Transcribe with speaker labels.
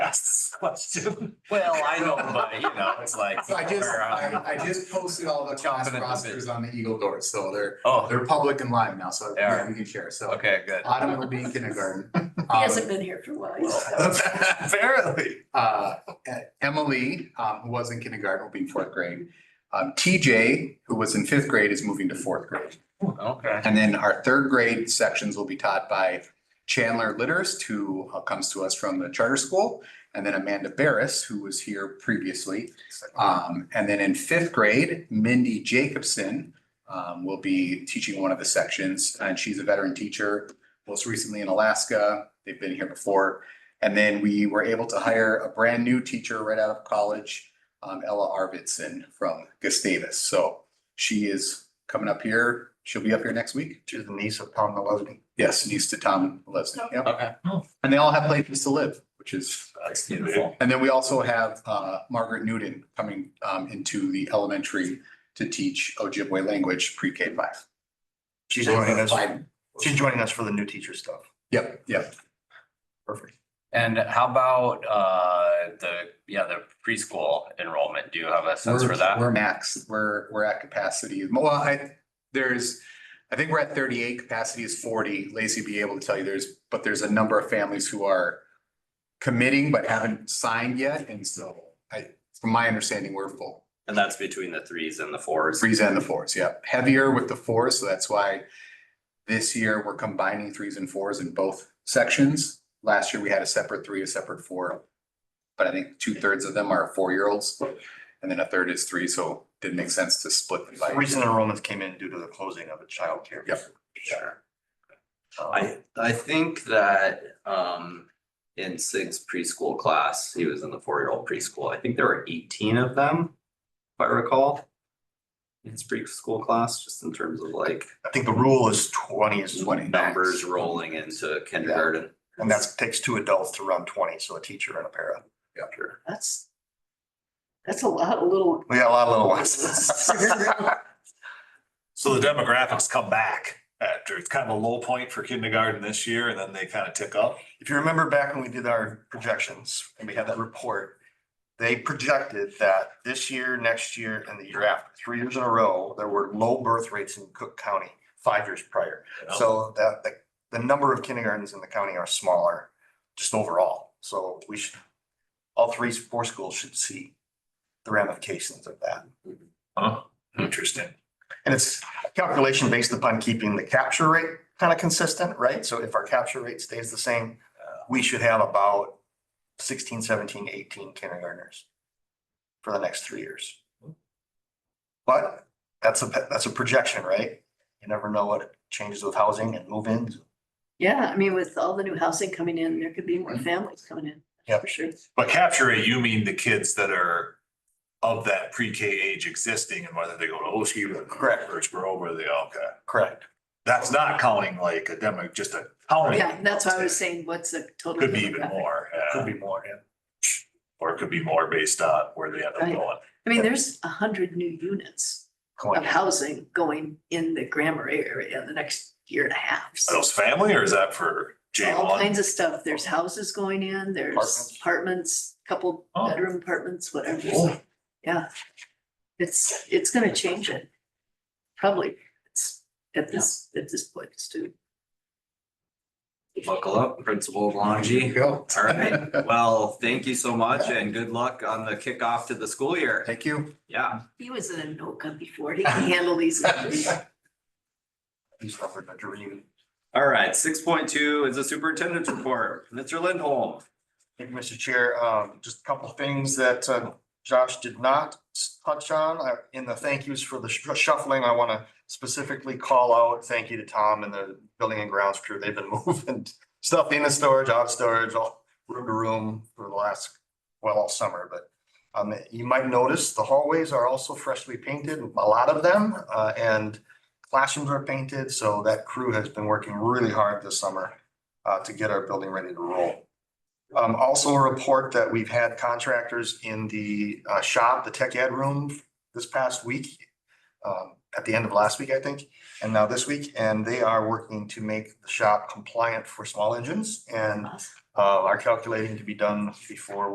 Speaker 1: question.
Speaker 2: Well,
Speaker 1: I know, but you know, it's like. uh,
Speaker 3: So I just, I, I just posted all the
Speaker 1: um, Chomping at
Speaker 3: class
Speaker 1: the bit.
Speaker 3: rosters on the Eagle doors, so they're,
Speaker 1: Oh,
Speaker 3: they're public and live now, so
Speaker 1: They are.
Speaker 3: we can share, so.
Speaker 1: okay, good.
Speaker 3: Autumn will be in kindergarten. Um,
Speaker 4: He hasn't been here for a while. so.
Speaker 1: Apparently.
Speaker 3: Uh, Emily, um, who was in kindergarten, will be in fourth grade. Um, TJ, who was in fifth grade, is moving to fourth grade.
Speaker 1: Okay.
Speaker 3: And then our third grade sections will be taught by Chandler Litterst, who uh, comes to us from the charter school. And then Amanda Barris, who was here previously. Um, and then in fifth grade, Mindy Jacobson um, will be teaching one of the sections, and she's a veteran teacher, most recently in Alaska. They've been here before. And then we were able to hire a brand new teacher right out of college, um, Ella Arvidsson from Gustavus. So she is coming up here. She'll be up here next week.
Speaker 5: She's the niece of Tom Malesny.
Speaker 3: Yes, needs to Tom Leslie. Yep.
Speaker 1: Okay.
Speaker 3: And they all have places to live, which is
Speaker 1: That's beautiful.
Speaker 3: and then we also have uh, Margaret Newton coming um, into the elementary to teach Ojibwe language pre-K five.
Speaker 5: She's joining us,
Speaker 3: Five.
Speaker 5: she's joining us for the new teacher stuff.
Speaker 3: Yep, yep.
Speaker 5: Perfect.
Speaker 1: And how about uh the, yeah, the preschool enrollment? Do you have a sense for
Speaker 3: We're-
Speaker 1: that?
Speaker 3: We're max, we're, we're at capacity. Well, I, there's, I think we're at thirty-eight, capacity is forty. Lacy be able to tell you there's, but there's a number of families who are committing but haven't signed yet. And so I, from my understanding, we're full.
Speaker 6: And that's between the threes and the fours.
Speaker 3: Threes and the fours, yeah. Heavier with the fours, so that's why this year we're combining threes and fours in both sections. Last year we had a separate three, a separate four. But I think two thirds of them are four-year-olds and then a third is three, so it didn't make sense to split them by.
Speaker 5: Recent enrollments came in due to the closing of a childcare.
Speaker 3: Yep.
Speaker 6: Sure.
Speaker 1: Oh.
Speaker 5: Um,
Speaker 6: I, I think that, um, in Sig's preschool class, he was in the four-year-old preschool. I think there were eighteen of them, if I recall. In his preschool class, just in terms of like
Speaker 5: I think the rule is twenty is
Speaker 3: Twenty.
Speaker 6: numbers rolling into kindergarten.
Speaker 5: And that's, takes two adults to run twenty, so a teacher and a para.
Speaker 6: Sure.
Speaker 4: That's, that's a lot of little,
Speaker 5: We got a lot of little ones.
Speaker 7: So the demographics come back after, it's kind of a low point for kindergarten this year and then they kind of tick up.
Speaker 5: If you remember back when we did our projections and we had that report, they projected that this year, next year, and the year after, three years in a row, there were low birth rates in Cook County, five years prior.
Speaker 7: you know?
Speaker 5: So that, the, the number of kindergartens in the county are smaller, just overall. So we should, all three, four schools should see the ramifications of that.
Speaker 4: uh-huh.
Speaker 7: Huh?
Speaker 4: Hmm.
Speaker 7: Interesting.
Speaker 5: And it's a calculation based upon keeping the capture rate kind of consistent, right? So if our capture rate stays the same, we should have about 16, 17, 18 kindergartners for the next three years. But that's a, that's a projection, right? You never know what changes with housing and move-ins.
Speaker 4: yeah, I mean, with all the new housing coming in, there could be more
Speaker 7: Mm-hmm.
Speaker 4: families coming in.
Speaker 5: Yep.
Speaker 4: For sure.
Speaker 7: But capture it, you mean the kids that are of that pre-K age existing and whether they go to Oshie or
Speaker 5: Correct.
Speaker 7: Birch Grove or they, okay.
Speaker 5: Correct.
Speaker 7: That's not counting like a demo, just a county.
Speaker 4: Yeah, that's why I was saying, what's the total?
Speaker 7: Could be even
Speaker 4: demographic?
Speaker 7: more,
Speaker 5: Could
Speaker 7: yeah,
Speaker 5: be more, yeah.
Speaker 7: or it could be more based on where they end up
Speaker 4: Right.
Speaker 7: going.
Speaker 4: I mean, there's a hundred new units of
Speaker 7: Oh,
Speaker 5: Going-
Speaker 4: housing going in the Grammar area in the next year and a half.
Speaker 7: Are
Speaker 4: So
Speaker 7: those family or is that for J
Speaker 4: All
Speaker 7: one?
Speaker 4: kinds of stuff. There's houses going in, there's
Speaker 5: Apartments.
Speaker 4: apartments, couple
Speaker 7: Oh.
Speaker 4: bedroom apartments, whatever. So, Yeah. It's, it's gonna change it. Probably, it's at this, at this point, it's too.
Speaker 6: Buckle up, Principal
Speaker 3: There you
Speaker 6: Longy.
Speaker 3: Go.
Speaker 6: All right. Well, thank you so much and good luck on the kickoff to the school year.
Speaker 3: Thank you.
Speaker 6: Yeah.
Speaker 4: He was in a NOCA before. He can handle these.
Speaker 5: These numbers are dreaming.
Speaker 6: All right. Six point two is the superintendent's report. Mr. Lindholm.
Speaker 5: Thank you, Mr. Chair. Um, just a couple of things that uh, Josh did not s- touch on. I- In the thank yous for the sh- shuffling, I want to specifically call out, thank you to Tom and the building and grounds crew. They've been moving stuff in the storage, out of storage, all room to room for the last, well, all summer, but um, you might notice the hallways are also freshly painted, a lot of them, uh, and classrooms are painted. So that crew has been working really hard this summer uh, to get our building ready to roll. Um, also a report that we've had contractors in the uh, shop, the tech ed room this past week. Um, at the end of last week, I think, and now this week, and they are working to make the shop compliant for small engines and uh, are calculating to be done before